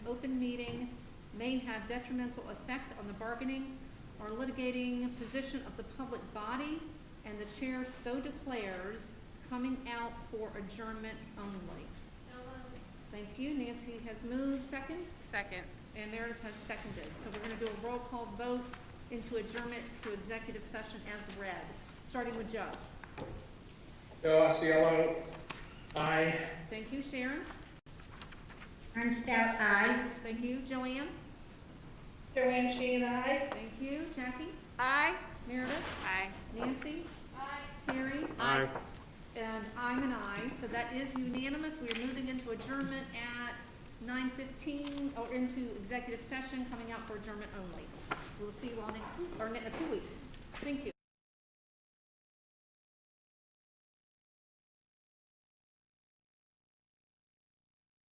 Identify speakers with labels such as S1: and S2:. S1: may have detrimental effect on the bargaining or litigating position of the public body, and the chair so declares, coming out for adjournment only. Thank you. Nancy has moved second,
S2: Second.
S1: and Meredith has seconded. So we're gonna do a roll call vote into adjournment to executive session as read, starting with Joe.
S3: Joe Osceola, aye.
S1: Thank you, Sharon.
S4: Armstead, aye.
S1: Thank you, Joanne.
S4: Joanne Sheehan, aye.
S1: Thank you, Jackie.
S2: Aye.
S1: Meredith,
S2: Aye.
S1: Nancy. Aye. Terry.
S3: Aye.
S1: And I'm an aye, so that is unanimous. We are moving into adjournment at nine fifteen, or into executive session, coming out for adjournment only. We'll see you all next week, or in two weeks. Thank you.